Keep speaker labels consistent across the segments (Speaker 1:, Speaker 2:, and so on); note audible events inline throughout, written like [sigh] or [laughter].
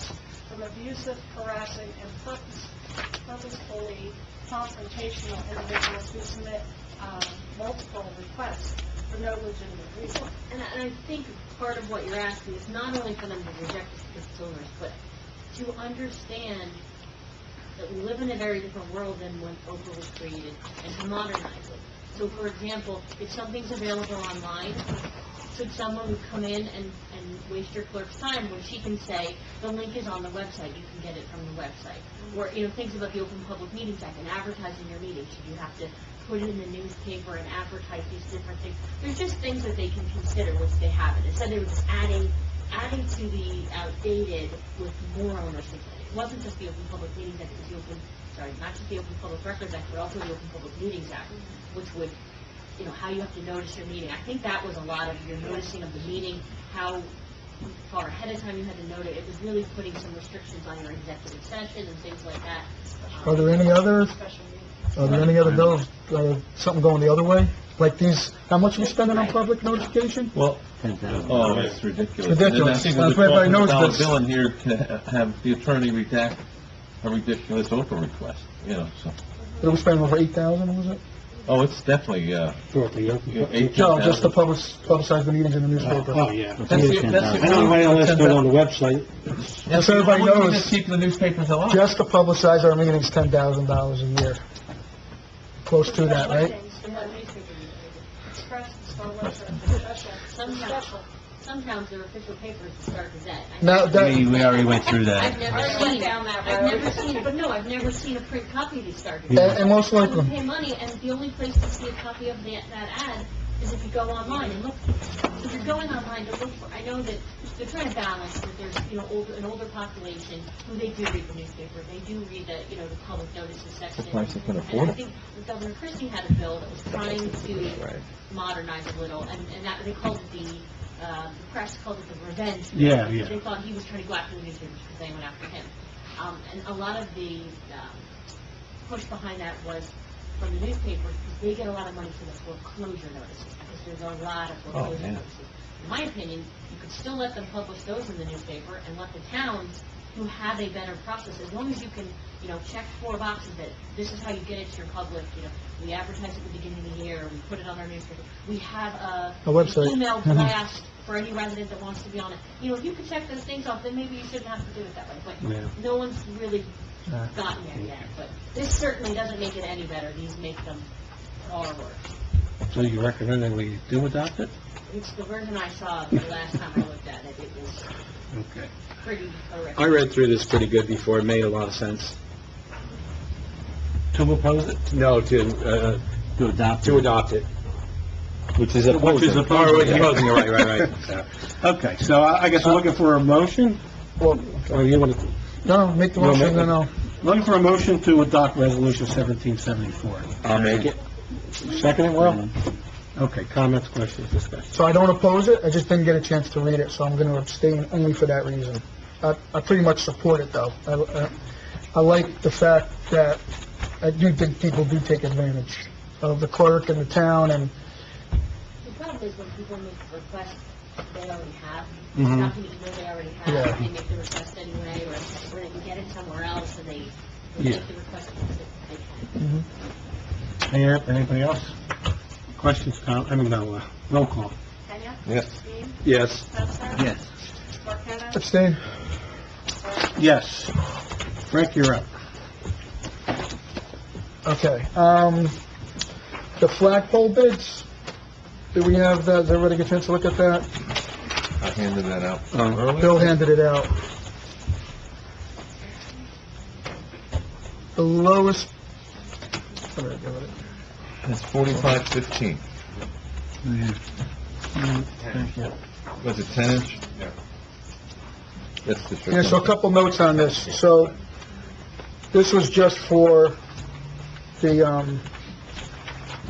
Speaker 1: from abusive, harassing, and purpose- purposefully confrontational individuals who submit um, multiple requests for no legitimate reason.
Speaker 2: And I, and I think part of what you're asking is not only for them to reject the consumers, but to understand that we live in a very different world than when Oprah was created, and to modernize it. So for example, if something's available online, should someone come in and, and waste your clerk's time when she can say, the link is on the website, you can get it from the website? Or, you know, things about the Open Public Meetings Act and advertising your meeting, should you have to put it in the newspaper and advertise these different things? There's just things that they can consider once they have it, instead they were just adding, adding to the outdated with more onerous. It wasn't just the Open Public Meetings Act, it was the Open, sorry, not just the Open Public Records Act, but also the Open Public Meetings Act, which would you know, how you have to notice your meeting. I think that was a lot of your noticing of the meeting, how far ahead of time you had to note it. It was really putting some restrictions on your executive session and things like that. Um,
Speaker 3: Are there any others?
Speaker 1: Special meeting.
Speaker 3: Are there any other bills, uh, something going the other way? Like these, how much we spending on public notification?
Speaker 4: Well, oh, it's ridiculous.
Speaker 3: It's ridiculous.
Speaker 4: And I think with
Speaker 3: That's
Speaker 4: the
Speaker 3: why everybody knows
Speaker 4: $1200
Speaker 3: this.
Speaker 4: bill in here, can have the attorney redact a ridiculous Oprah request, you know, so.
Speaker 3: Did we spend over eight thousand, was it?
Speaker 4: Oh, it's definitely, uh, you know, eight, ten
Speaker 3: No, just to
Speaker 4: thousand.
Speaker 3: public, publicize the meetings in the newspaper.
Speaker 5: Oh, yeah.
Speaker 4: That's the- that's the-
Speaker 5: I know everybody else put it on the website.
Speaker 4: That's
Speaker 3: so
Speaker 4: the-
Speaker 3: everybody
Speaker 4: why don't we
Speaker 3: knows.
Speaker 4: just keep the newspapers alive.
Speaker 3: Just to publicize our meetings, ten thousand dollars a year. Close to that, right?
Speaker 1: Special meetings, the Express, Star Wars, and special,
Speaker 2: Some
Speaker 1: some special.
Speaker 2: Some towns their official paper is the Star Gazette. I-
Speaker 3: Now, that,
Speaker 6: we already went through
Speaker 2: I've never
Speaker 1: I went
Speaker 2: seen,
Speaker 1: down that
Speaker 2: I've
Speaker 1: road.
Speaker 2: never seen, but no, I've never seen a print copy of the Star
Speaker 3: and
Speaker 2: Gazette.
Speaker 3: and most
Speaker 2: You
Speaker 3: likely,
Speaker 2: pay money, and the only place to see a copy of that, that ad is if you go online and look. If you're going online to look for, I know that they're trying to balance that there's, you know, older, an older population who they do read the newspaper, they do read the, you know, the public notices section.
Speaker 4: The price they can
Speaker 2: And
Speaker 4: afford
Speaker 2: I
Speaker 4: it.
Speaker 2: think Governor Christie had a bill that was trying to modernize a little, and, and that, they called it the, uh, the press called it the revenge. bill.
Speaker 5: Yeah, yeah.
Speaker 2: They thought he was trying to go after the newspapers because they went after him. Um, and a lot of the, um, push behind that was from the newspapers, because they get a lot of money for the foreclosure notices, because there's a lot of
Speaker 4: Oh,
Speaker 2: foreclosure
Speaker 4: yeah.
Speaker 2: notices. In my opinion, you could still let them publish those in the newspaper and let the towns who have a better process, as long as you can, you know, check four boxes that this is how you get it to your public, you know, we advertise at the beginning of the year, we put it on our newspaper, we have a
Speaker 3: A website.
Speaker 2: email
Speaker 3: Mhm.
Speaker 2: blast for any resident that wants to be on it. You know, if you could check those things off, then maybe you shouldn't have to do it that way,
Speaker 5: Yeah.
Speaker 2: but no one's really
Speaker 3: Yeah.
Speaker 2: gotten there yet, but this certainly doesn't make it any better, these make them far worse.
Speaker 5: So you recommend that we do adopt it?
Speaker 2: It's the version I saw the last time I looked at it, it was
Speaker 5: Okay.
Speaker 2: pretty horrific.
Speaker 6: I read through this pretty good before, it made a lot of sense.
Speaker 5: To oppose it?
Speaker 6: No, to, uh,
Speaker 5: To adopt
Speaker 6: to adopt it. Which is
Speaker 5: Which is opposing.
Speaker 6: Oh, opposing, you're right, right, right.
Speaker 5: Okay, so I I guess we're looking for a motion?
Speaker 3: well,
Speaker 5: Or you want to,
Speaker 3: no, make the motion, no, no.
Speaker 5: looking for a motion to adopt Resolution 1774.
Speaker 6: [laughs] I'll make it.
Speaker 5: Second it, Will? Mm-hmm. Okay, comments, questions, discussion.
Speaker 3: So I don't oppose it, I just didn't get a chance to read it, so I'm going to abstain only for that reason. I, I pretty much support it, though. I, I- I like the fact that I do think people do take advantage of the clerk and the town, and
Speaker 2: The problem is when people make the request, they already have,
Speaker 5: Mhm.
Speaker 2: not gonna even know they already
Speaker 3: Yeah.
Speaker 2: have, they make the request anyway, or, or they can get it somewhere else, and they, they
Speaker 5: Yeah.
Speaker 2: make the request because they can.
Speaker 5: Mayor, anybody else? Questions, com, I mean, no, uh, roll call.
Speaker 1: Kenya?
Speaker 4: Yes.
Speaker 1: Dean?
Speaker 5: Yes.
Speaker 1: Spencer?
Speaker 5: Yes.
Speaker 1: Marqueta?
Speaker 3: abstain.
Speaker 5: Yes. Frank, you're up.
Speaker 3: Okay, um, the flagpole bids, do we have that, does everybody get a chance to look at that?
Speaker 4: I handed that out
Speaker 5: Um,
Speaker 4: earlier.
Speaker 3: Bill handed it out. The lowest, I'm gonna go with it.
Speaker 4: It's forty-five fifteen. Was it ten inch? Yeah. That's the.
Speaker 3: Mm-hmm. Yeah, so a couple notes on this. So, this was just for the, um,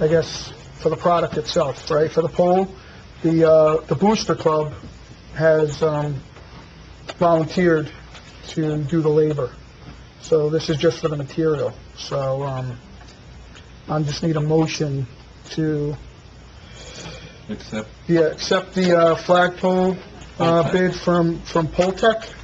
Speaker 3: I guess, for the product itself, right? For the pole, the, uh, the Booster Club has, um, volunteered to do the labor. So this is just for the material. So, um, I just need a motion to,
Speaker 4: Except
Speaker 3: yeah, accept the, uh, flagpole, uh, bid from, from Poltech